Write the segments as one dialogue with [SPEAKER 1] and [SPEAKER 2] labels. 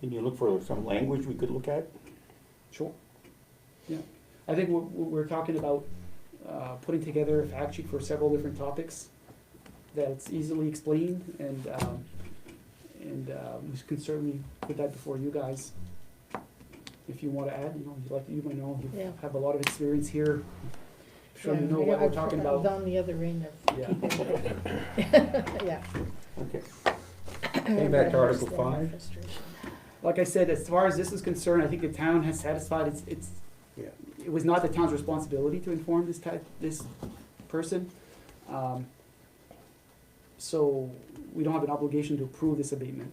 [SPEAKER 1] Can you look for some language we could look at?
[SPEAKER 2] Sure. Yeah, I think we're, we're talking about, uh, putting together a fact sheet for several different topics that's easily explained and, um, and, uh, we can certainly put that before you guys. If you wanna add, you know, you like, you might know,
[SPEAKER 3] Yeah.
[SPEAKER 2] you have a lot of experience here. Sure you
[SPEAKER 3] Yeah,
[SPEAKER 2] know
[SPEAKER 3] I
[SPEAKER 2] what we're
[SPEAKER 3] I've-
[SPEAKER 2] talking
[SPEAKER 3] I've
[SPEAKER 2] about.
[SPEAKER 3] done the other end
[SPEAKER 2] Yeah,
[SPEAKER 3] of, yeah.
[SPEAKER 1] Okay.
[SPEAKER 3] Came
[SPEAKER 1] back to Article five.
[SPEAKER 2] like I said, as far as this is concerned, I think the town has satisfied its, its,
[SPEAKER 1] Yeah.
[SPEAKER 2] it was not the town's responsibility to inform this type, this person. Um, So we don't have an obligation to approve this abatement.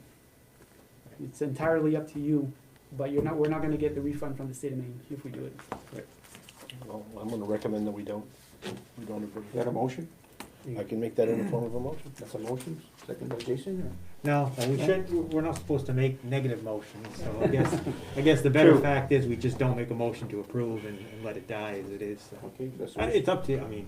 [SPEAKER 2] It's entirely up to you, but you're not, we're not gonna get the refund from the state of Maine if we do it.
[SPEAKER 4] Well, I'm gonna recommend that we don't, we don't
[SPEAKER 1] Is that a
[SPEAKER 4] approve.
[SPEAKER 1] motion?
[SPEAKER 4] I can make that in the form of a motion.
[SPEAKER 1] That's a motion, second by Jason, or?
[SPEAKER 5] No, and we
[SPEAKER 2] Yeah.
[SPEAKER 5] should, we're- we're not supposed to make negative motions, so I guess, I guess the better
[SPEAKER 1] True.
[SPEAKER 5] fact is we just don't make a motion to approve and, and let it die as it is, so.
[SPEAKER 1] Okay, that's.
[SPEAKER 5] Uh, It's up to, you. I mean,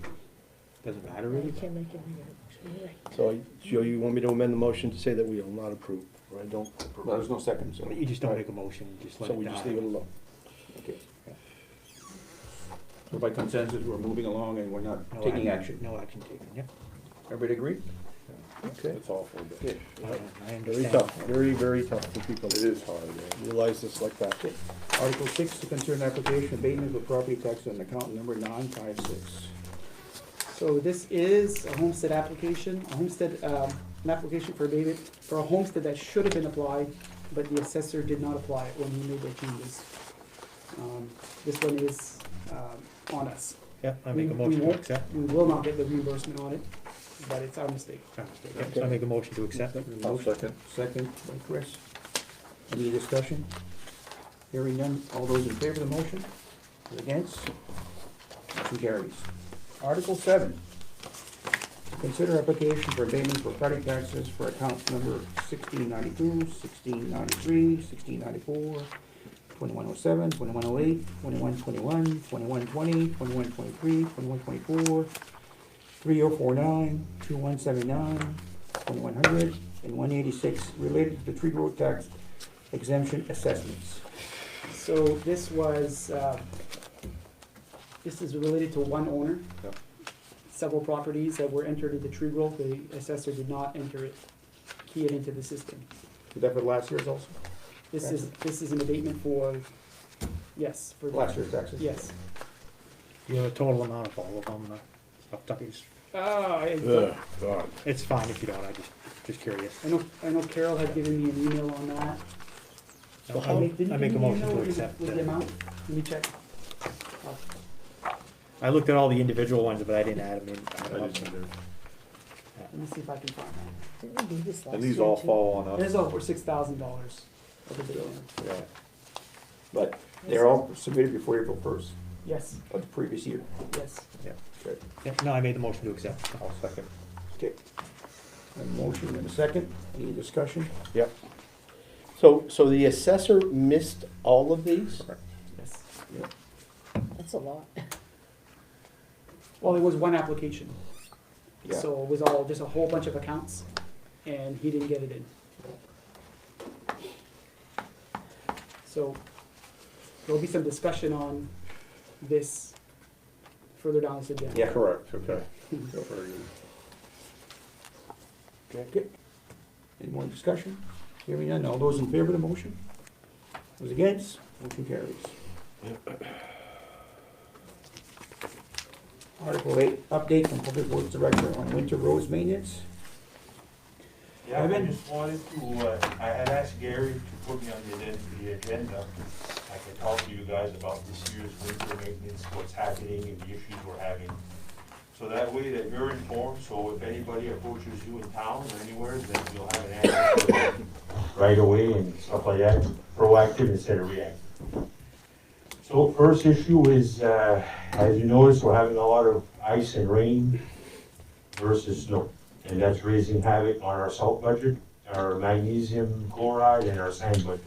[SPEAKER 5] doesn't matter
[SPEAKER 3] You
[SPEAKER 5] really.
[SPEAKER 3] can't make it negative, you're right.
[SPEAKER 4] So, I- Joe, you want me to amend the motion to say that we will not approve, or I don't
[SPEAKER 1] Well, there's
[SPEAKER 4] approve?
[SPEAKER 1] no second, so.
[SPEAKER 5] But You just don't make a motion, you just let
[SPEAKER 4] So
[SPEAKER 5] it
[SPEAKER 4] we just leave
[SPEAKER 5] die.
[SPEAKER 4] it alone.
[SPEAKER 1] Okay. So by consensus, we're moving along and we're not
[SPEAKER 5] No
[SPEAKER 1] taking action.
[SPEAKER 5] No action taken, yep.
[SPEAKER 1] Everybody agree? Okay.
[SPEAKER 4] It's awful, but
[SPEAKER 1] Yeah.
[SPEAKER 5] I I
[SPEAKER 4] very
[SPEAKER 5] understand.
[SPEAKER 4] tough, very, very tough for people to
[SPEAKER 1] hard, yeah.
[SPEAKER 4] realize this like that.
[SPEAKER 1] Okay. Article six, to consider an application abatement of property tax on account number nine five six.
[SPEAKER 2] So this is a homestead application, a homestead, um, an application for abatement for a homestead that should have been applied, but the assessor did not apply it when he made their changes. Um, This one is um, on us.
[SPEAKER 5] Yep, I
[SPEAKER 2] We-
[SPEAKER 5] make a
[SPEAKER 2] we
[SPEAKER 5] motion to
[SPEAKER 2] won't-
[SPEAKER 5] accept.
[SPEAKER 2] We will not get the reimbursement on it, but it's our mistake.
[SPEAKER 5] Sorry, yep, so I make a motion to accept.
[SPEAKER 1] I'll second. Second by Chris. Any discussion? Hearing none, all those in favor of the motion? Those Against? Motion carries. Article seven. Consider application for abatement for property taxes for account number 1692, 1693, 1694, 2107, 2108, 2121, 2120, 2123, 2124, 3049, 2179, 2100, and 186 related to tree growth tax exemption assessments.
[SPEAKER 2] So this was, uh, this is related to one owner.
[SPEAKER 1] Yep.
[SPEAKER 2] Several properties that were entered into tree growth, the assessor did not enter it, key it into the system.
[SPEAKER 1] Is that for last year's also?
[SPEAKER 2] This is, this is an abatement for, yes, for.
[SPEAKER 1] Last year's taxes?
[SPEAKER 2] Yes.
[SPEAKER 5] You have a total amount of all of them, uh, up to- it's-
[SPEAKER 2] Ah, I,
[SPEAKER 4] God.
[SPEAKER 5] it's fine if you don't, I just, just curious.
[SPEAKER 2] I know, I know Carol had given me an email on that.
[SPEAKER 5] I I make a motion to accept.
[SPEAKER 2] With the
[SPEAKER 5] uh,
[SPEAKER 2] amount, let me check. Oh,
[SPEAKER 5] I looked at all the individual ones, but I didn't add them in.
[SPEAKER 2] Let me see if I can find that.
[SPEAKER 3] Didn't we do this last
[SPEAKER 6] And these
[SPEAKER 3] year,
[SPEAKER 6] all
[SPEAKER 3] too?
[SPEAKER 6] fall on us.
[SPEAKER 2] There's over six thousand dollars of abatement.
[SPEAKER 1] But they're all submitted before April first
[SPEAKER 2] Yes,
[SPEAKER 1] of the previous year.
[SPEAKER 2] yes.
[SPEAKER 1] Okay.
[SPEAKER 5] Yeah, No, I made the motion to accept.
[SPEAKER 6] I'll second.
[SPEAKER 1] Okay. A motion and a second. Any discussion?
[SPEAKER 4] Yep. So, so the assessor missed all of these?
[SPEAKER 2] Yes.
[SPEAKER 3] That's a lot.
[SPEAKER 2] Well, it was one application,
[SPEAKER 1] Yeah.
[SPEAKER 2] so it was all, just a whole bunch of accounts, and he didn't get it in. So there'll be some discussion on this further down this agenda.
[SPEAKER 1] Yeah.
[SPEAKER 6] Correct, okay.
[SPEAKER 1] Okay. Any more discussion? Hearing none. All those in favor of the motion? Those against? Motion carries. Article eight, update from Public Works Director on winter roads maintenance.
[SPEAKER 7] Yeah, I
[SPEAKER 1] Evan?
[SPEAKER 7] just wanted to, uh, I had asked Gary to put me on the agen- the agenda. I could talk to you guys about this year's winter maintenance, what's happening and the issues we're having. So that way that you're informed, so if anybody approaches you in town or anywhere, then you'll have an answer for them right away and stuff like that, proactive instead of reactive. So first issue is, uh, as you notice, we're having a lot of ice and rain versus snow. And that's raising havoc on our salt budget, our magnesium chloride, and our sand budget.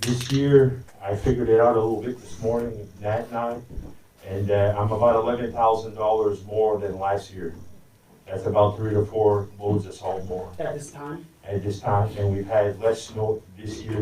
[SPEAKER 7] This year, I figured it out a little bit this morning, Nat and I, and uh, I'm about eleven thousand dollars more than last year. That's about three to four loads of salt more
[SPEAKER 2] At this time?
[SPEAKER 7] at this time, and we've had less snow this year